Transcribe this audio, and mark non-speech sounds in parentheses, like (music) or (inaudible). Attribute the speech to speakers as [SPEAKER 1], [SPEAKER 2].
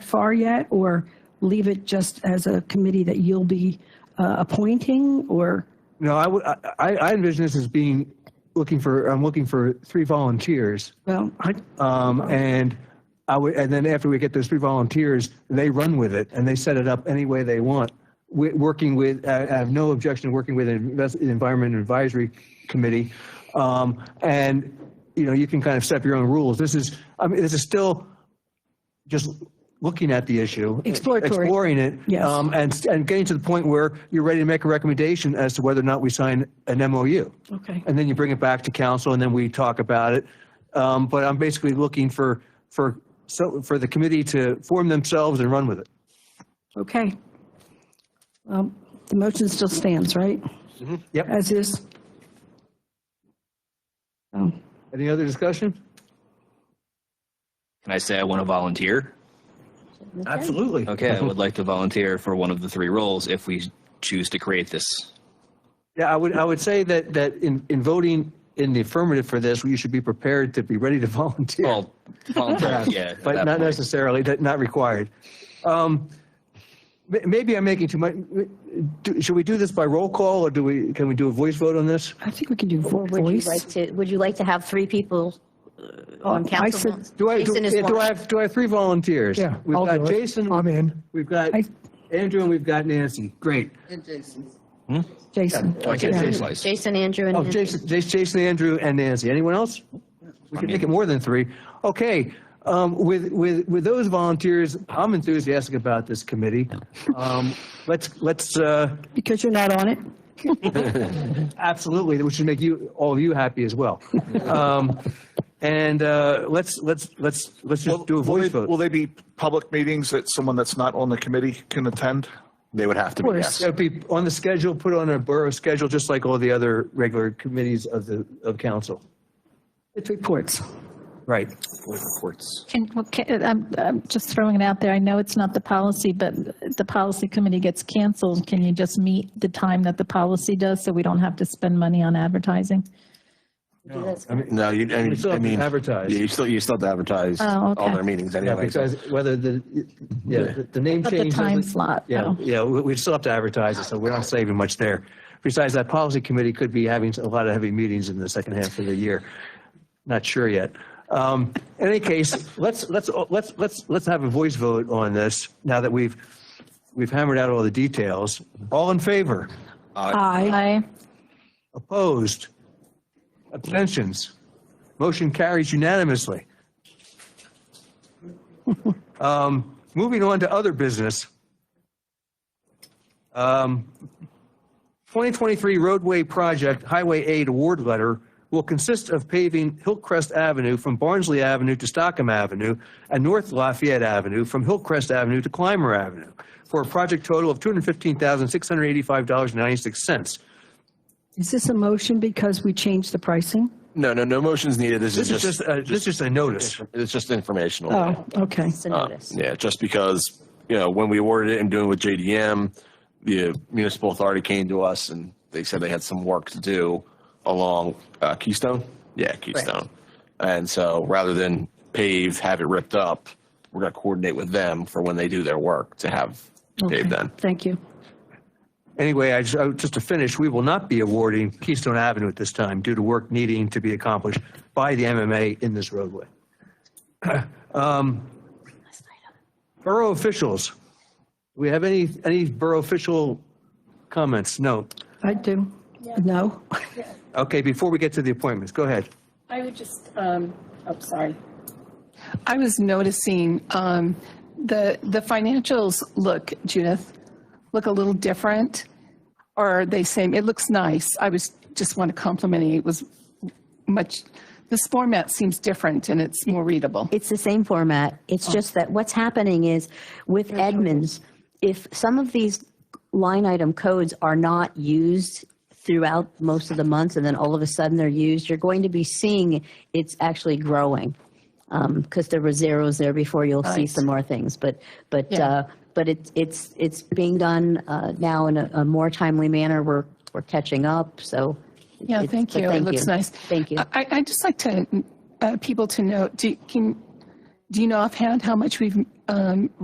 [SPEAKER 1] far yet, or leave it just as a committee that you'll be uh, appointing, or,
[SPEAKER 2] No, I would, I, I I envision this as being, looking for, I'm looking for three volunteers.
[SPEAKER 1] well, I,
[SPEAKER 2] Um, and I would, and then after we get those three volunteers, they run with it and they set it up any way they want. Wi- Working with, I I have no objection to working with an invest- an Environment Advisory Committee. Um, and, you know, you can kind of set up your own rules. This is, I mean, this is still just looking at the issue.
[SPEAKER 1] Exploratory.
[SPEAKER 2] Exploring it.
[SPEAKER 1] Yes.
[SPEAKER 2] Um, and, and getting to the point where you're ready to make a recommendation as to whether or not we sign an MOU
[SPEAKER 1] okay.
[SPEAKER 2] and then you bring it back to council, and then we talk about it. Um, But I'm basically looking for, for, so, for the committee to form themselves and run with it.
[SPEAKER 1] Okay. Um, The motion still stands, right?
[SPEAKER 2] Yep.
[SPEAKER 1] As is? Oh,
[SPEAKER 2] Any other discussion?
[SPEAKER 3] Can I say I want to volunteer?
[SPEAKER 2] Absolutely.
[SPEAKER 3] Okay, I would like to volunteer for one of the three roles if we choose to create this.
[SPEAKER 2] Yeah, I would, I would say that, that in, in voting in the affirmative for this, you should be prepared to be ready to (laughs) volunteer.
[SPEAKER 3] Well, volunteer, yeah. at
[SPEAKER 2] But
[SPEAKER 3] that
[SPEAKER 2] not
[SPEAKER 3] point.
[SPEAKER 2] necessarily, that- not required. Um, ma- Maybe I'm making too much, do- should we do this by roll call, or do we, can we do a voice vote on this?
[SPEAKER 1] I think we can do vo-
[SPEAKER 4] Would you like
[SPEAKER 1] voice.
[SPEAKER 4] to, would you like to have three people uh, on
[SPEAKER 1] I
[SPEAKER 4] council?
[SPEAKER 1] said-
[SPEAKER 2] Do Oh, I, do
[SPEAKER 4] Jason is
[SPEAKER 2] yeah, do I
[SPEAKER 4] one.
[SPEAKER 2] have, do I have three volunteers?
[SPEAKER 5] Yeah,
[SPEAKER 2] We've
[SPEAKER 5] I'll
[SPEAKER 2] got
[SPEAKER 5] do it.
[SPEAKER 2] Jason.
[SPEAKER 5] I'm in.
[SPEAKER 2] We've got
[SPEAKER 1] I-
[SPEAKER 2] Andrew and we've got Nancy. Great.
[SPEAKER 1] Jason.
[SPEAKER 3] Do I get to
[SPEAKER 1] Yeah.
[SPEAKER 3] say twice?
[SPEAKER 4] Jason, Andrew, and
[SPEAKER 2] Oh,
[SPEAKER 4] Henry.
[SPEAKER 2] Jason, Jas- Jason, Andrew, and Nancy. Anyone else? We can make it more than three. Okay. Um, with, with, with those volunteers, I'm enthusiastic about this committee. Um, let's, let's, uh,
[SPEAKER 1] Because you're not on it?
[SPEAKER 2] absolutely, which should make you, all of you happy as
[SPEAKER 6] (laughs)
[SPEAKER 2] well. Um, and, uh, let's, let's, let's, let's just do a
[SPEAKER 6] Will
[SPEAKER 2] voice
[SPEAKER 6] they- Will
[SPEAKER 2] vote.
[SPEAKER 6] they be public meetings that someone that's not on the committee can attend?
[SPEAKER 7] They would have to be, yes.
[SPEAKER 2] It'll be on the schedule, put on a borough schedule, just like all the other regular committees of the, of council.
[SPEAKER 1] It's reports.
[SPEAKER 2] Right.
[SPEAKER 8] Can, well, can- I'm, I'm just throwing it out there. I know it's not the policy, but the policy committee gets canceled. Can you just meet the time that the policy does so we don't have to spend money on advertising?
[SPEAKER 7] No, you, I
[SPEAKER 2] We
[SPEAKER 7] mean,
[SPEAKER 2] still
[SPEAKER 7] I
[SPEAKER 2] have
[SPEAKER 7] mean.
[SPEAKER 2] to advertise.
[SPEAKER 7] Yeah, you still, you still have to advertise
[SPEAKER 8] Oh,
[SPEAKER 7] all
[SPEAKER 8] okay.
[SPEAKER 7] their meetings
[SPEAKER 2] Yeah,
[SPEAKER 7] anyway. so-
[SPEAKER 2] because whether the, yeah, the- the name
[SPEAKER 8] But
[SPEAKER 2] change.
[SPEAKER 8] the time
[SPEAKER 2] doesn't-
[SPEAKER 8] slot,
[SPEAKER 2] Yeah,
[SPEAKER 8] though.
[SPEAKER 2] yeah, we- we'd still have to advertise it, so we're not saving much there. Besides, that policy committee could be having a lot of heavy meetings in the second half of the year. Not sure yet. Um, In any case, let's, let's, let's, let's, let's have a voice vote on this now that we've, we've hammered out all the details. All in favor?
[SPEAKER 1] Aye.
[SPEAKER 8] Aye.
[SPEAKER 2] Opposed? Abstentions? Motion carries unanimously. (laughs) Um, Moving on to other business. Um, 2023 roadway project Highway Aid award letter will consist of paving Hillcrest Avenue from Barnsley Avenue to Stockham Avenue and North Lafayette Avenue from Hillcrest Avenue to Clymer Avenue for a project total of $215,685.96.
[SPEAKER 1] Is this a motion because we changed the pricing?
[SPEAKER 7] No, no, no motion's needed. This
[SPEAKER 2] This is just, uh, this is just a notice.
[SPEAKER 7] It's just informational.
[SPEAKER 1] Oh, okay.
[SPEAKER 4] It's a
[SPEAKER 7] Uh,
[SPEAKER 4] notice.
[SPEAKER 7] Yeah, just because, you know, when we awarded it and doing it with JDM, the municipal authority came to us and they said they had some work to do along uh, Keystone. Yeah, Keystone. And so rather than pave, have it ripped up, we're going to coordinate with them for when they do their work to have
[SPEAKER 1] Okay.
[SPEAKER 7] paved then.
[SPEAKER 1] Thank you.
[SPEAKER 2] Anyway, I just, I- just to finish, we will not be awarding Keystone Avenue at this time due to work needing to be accomplished by the MMA in this roadway. (clears throat) Um, Borough officials, do we have any, any borough official comments? No.
[SPEAKER 1] I do. No?
[SPEAKER 2] Okay, before we get to the appointments, go ahead.
[SPEAKER 9] I would just, um, oh, sorry.
[SPEAKER 10] I was noticing um, the the financials look, Judith, look a little different, or are they same? It looks nice. I was just want to compliment you. It was much. This format seems different and it's more readable.
[SPEAKER 4] It's the same format. It's just that what's happening is with Edmunds, if some of these line item codes are not used throughout most of the months and then all of a sudden they're used, you're going to be seeing it's actually growing. Because there were zeros there before, you'll see some more things. But, but,
[SPEAKER 10] Yeah.
[SPEAKER 4] uh, but it's, it's, it's being done uh, now in a a more timely manner. We're, we're catching up, so.
[SPEAKER 10] Yeah,
[SPEAKER 4] it's-
[SPEAKER 10] thank
[SPEAKER 4] but
[SPEAKER 10] you. It looks nice.
[SPEAKER 4] Thank you.
[SPEAKER 10] I, I'd just like to, uh, people to know, do, can, do you know offhand how much we've um,